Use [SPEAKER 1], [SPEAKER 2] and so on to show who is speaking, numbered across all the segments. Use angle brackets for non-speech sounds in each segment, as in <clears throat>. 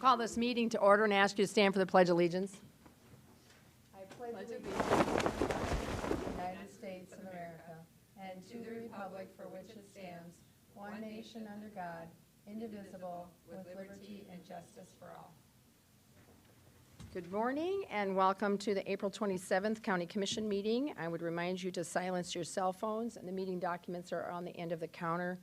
[SPEAKER 1] Call this meeting to order and ask you to stand for the Pledge of Allegiance.
[SPEAKER 2] United States of America, and to the republic for which it stands, one nation under God, indivisible, with liberty and justice for all.
[SPEAKER 1] Good morning and welcome to the April 27th County Commission meeting. I would remind you to silence your cell phones, and the meeting documents are on the end of the counter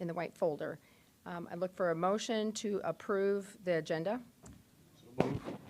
[SPEAKER 1] in the white folder. Um, I look for a motion to approve the agenda.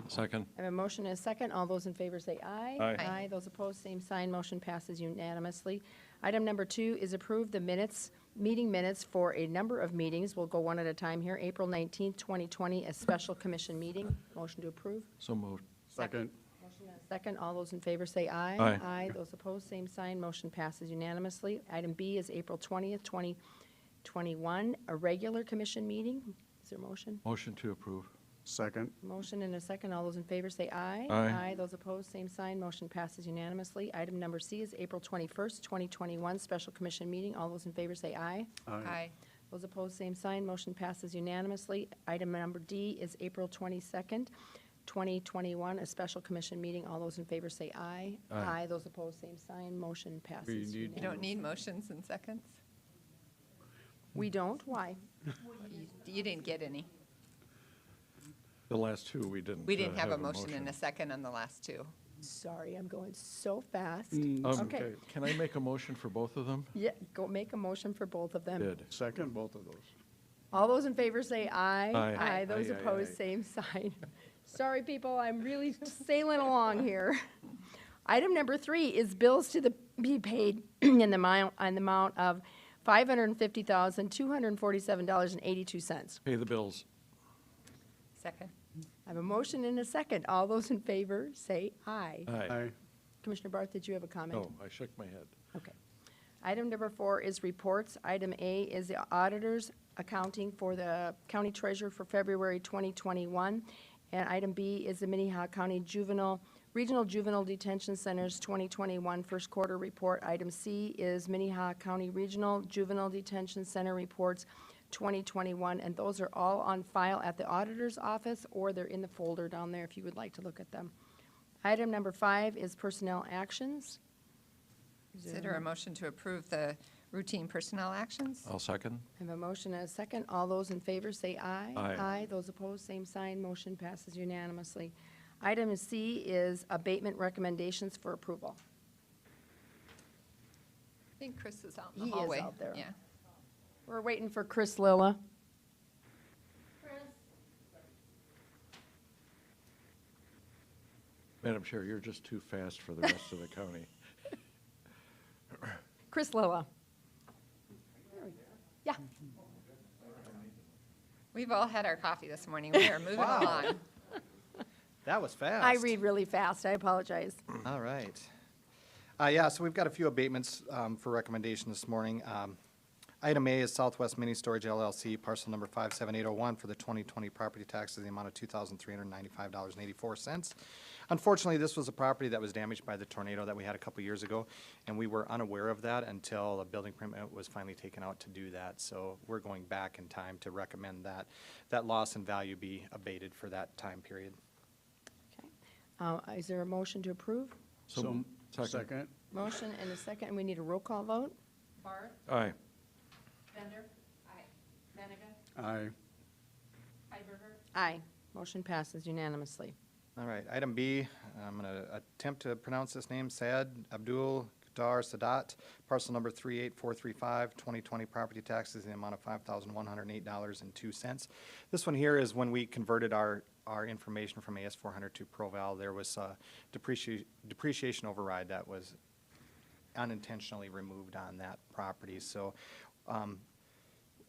[SPEAKER 3] Second.
[SPEAKER 1] I have a motion and a second. All those in favor say aye.
[SPEAKER 3] Aye. Aye.
[SPEAKER 1] Aye. Those opposed, same sign. Motion passes unanimously. Item number two is approve the minutes, meeting minutes for a number of meetings. We'll go one at a time here. April 19th, 2020, a special commission meeting. Motion to approve.
[SPEAKER 3] So moved.
[SPEAKER 4] Second.
[SPEAKER 1] Motion and a Second, all those in favor say aye.
[SPEAKER 3] Aye.
[SPEAKER 1] those opposed, same sign, motion passes unanimously. Item B is April 20th, 2021, a regular commission meeting. Is there a motion?
[SPEAKER 3] Motion to approve.
[SPEAKER 4] Second.
[SPEAKER 1] Motion and a second, all those in favor say aye.
[SPEAKER 3] Aye.
[SPEAKER 1] those opposed, same sign, motion passes unanimously. Item number C is April 21st, 2021, special commission meeting. All those in favor say aye.
[SPEAKER 4] Aye.
[SPEAKER 1] Those opposed, same sign. Motion passes unanimously. Item number D is April 22nd, 2021, a special commission meeting. All those in favor say aye.
[SPEAKER 3] Aye.
[SPEAKER 1] Those opposed, same sign. Motion
[SPEAKER 4] We
[SPEAKER 1] passes
[SPEAKER 4] need-
[SPEAKER 1] unanimously.
[SPEAKER 5] You don't need motions and seconds?
[SPEAKER 1] We don't? Why?
[SPEAKER 5] You- You didn't get any.
[SPEAKER 3] The last two, we didn't.
[SPEAKER 5] We didn't
[SPEAKER 3] uh,
[SPEAKER 5] have a motion and a second on the last two.
[SPEAKER 1] Sorry, I'm going so fast.
[SPEAKER 4] Mm.
[SPEAKER 3] Um,
[SPEAKER 1] Okay.
[SPEAKER 3] Can I make a motion for both of them?
[SPEAKER 1] Yeah, go make a motion for both of them.
[SPEAKER 3] Did.
[SPEAKER 4] Second, both of those.
[SPEAKER 1] All those in favor say aye.
[SPEAKER 3] Aye. Aye.
[SPEAKER 1] Aye, those
[SPEAKER 3] Aye, aye,
[SPEAKER 1] opposed,
[SPEAKER 3] aye.
[SPEAKER 1] same <laughs> sign. Sorry, people, I'm really sailing along here. Item number three is bills to the, be paid <clears throat> in the amount, on the amount of $550,247.82.
[SPEAKER 3] Pay the bills.
[SPEAKER 5] Second?
[SPEAKER 1] I have a motion and a second. All those in favor, say aye.
[SPEAKER 3] Aye.
[SPEAKER 4] Aye.
[SPEAKER 1] Commissioner Barth, did you have a comment?
[SPEAKER 3] No, I shook my head.
[SPEAKER 1] Okay. Item number four is reports. Item A is the auditor's accounting for the county treasurer for February 2021. And item B is the Minnehaha County Juvenile, Regional Juvenile Detention Center's 2021 first quarter report. Item C is Minnehaha County Regional Juvenile Detention Center reports 2021. And those are all on file at the auditor's office, or they're in the folder down there if you would like to look at them. Item number five is personnel actions. Is there a
[SPEAKER 5] Consider a motion to approve the routine personnel actions?
[SPEAKER 3] I'll second.
[SPEAKER 1] I have a motion and a second. All those in favor say aye.
[SPEAKER 3] Aye.
[SPEAKER 1] Those opposed, same sign. Motion passes unanimously. Item C is abatement recommendations for approval.
[SPEAKER 5] I think Chris is out
[SPEAKER 1] He
[SPEAKER 5] in
[SPEAKER 1] is
[SPEAKER 5] the hallway.
[SPEAKER 1] out there.
[SPEAKER 5] Yeah.
[SPEAKER 1] We're waiting for Chris Lilla.
[SPEAKER 3] Madam Chair, you're just too fast for the rest of the <laughs> county.
[SPEAKER 1] Chris Lilla. Yeah,
[SPEAKER 5] We've all had our coffee this morning. We are moving along.
[SPEAKER 6] That was fast.
[SPEAKER 1] I read really fast. I apologize.
[SPEAKER 6] All right. Uh, yeah, so we've got a few abatements, um, for recommendation this morning. Um, item A is Southwest Mini Storage LLC, parcel number five seven eight oh one for the twenty twenty property taxes in the amount of two thousand three hundred ninety-five dollars and eighty-four cents. Unfortunately, this was a property that was damaged by the tornado that we had a couple years ago, and we were unaware of that until a building permit was finally taken out to do that. So we're going back in time to recommend that, that loss in value be abated for that time period.
[SPEAKER 1] Okay. Uh, Is there a motion to approve?
[SPEAKER 3] So, second.
[SPEAKER 4] Second.
[SPEAKER 1] Motion and a second, and we need a roll call vote?
[SPEAKER 2] Barth,
[SPEAKER 3] Aye.
[SPEAKER 2] Bender. Aye. Benega.
[SPEAKER 4] Aye.
[SPEAKER 2] Hiberger.
[SPEAKER 1] Aye. Motion passes unanimously.
[SPEAKER 6] All right, item B, I'm going to attempt to pronounce this name, Saad Abdul Qatar Sadat, parcel number 38435, 2020 property taxes in the amount of $5,108.02. This one here is when we converted our, our information from AS400 to ProVal, there was a depreciation, depreciation override that was unintentionally removed on that property. So um,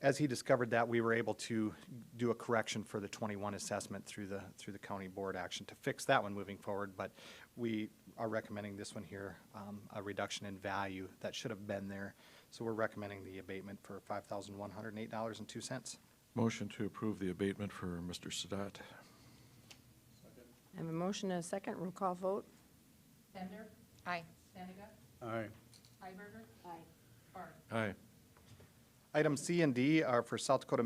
[SPEAKER 6] as he discovered that, we were able to do a correction for the 21 assessment through the, through the county board action to fix that one moving forward. But we are recommending this one here, um, a reduction in value that should have been there. So we're recommending the abatement for $5,108.02.
[SPEAKER 3] Motion to approve the abatement for Mr. Sadat.
[SPEAKER 1] I have a motion and a second, roll call vote?
[SPEAKER 2] Bender.
[SPEAKER 5] Aye.
[SPEAKER 2] Benega.
[SPEAKER 4] Aye.
[SPEAKER 2] Hiberger. Aye. Barth.
[SPEAKER 3] Aye.
[SPEAKER 6] Item C and D are for South Dakota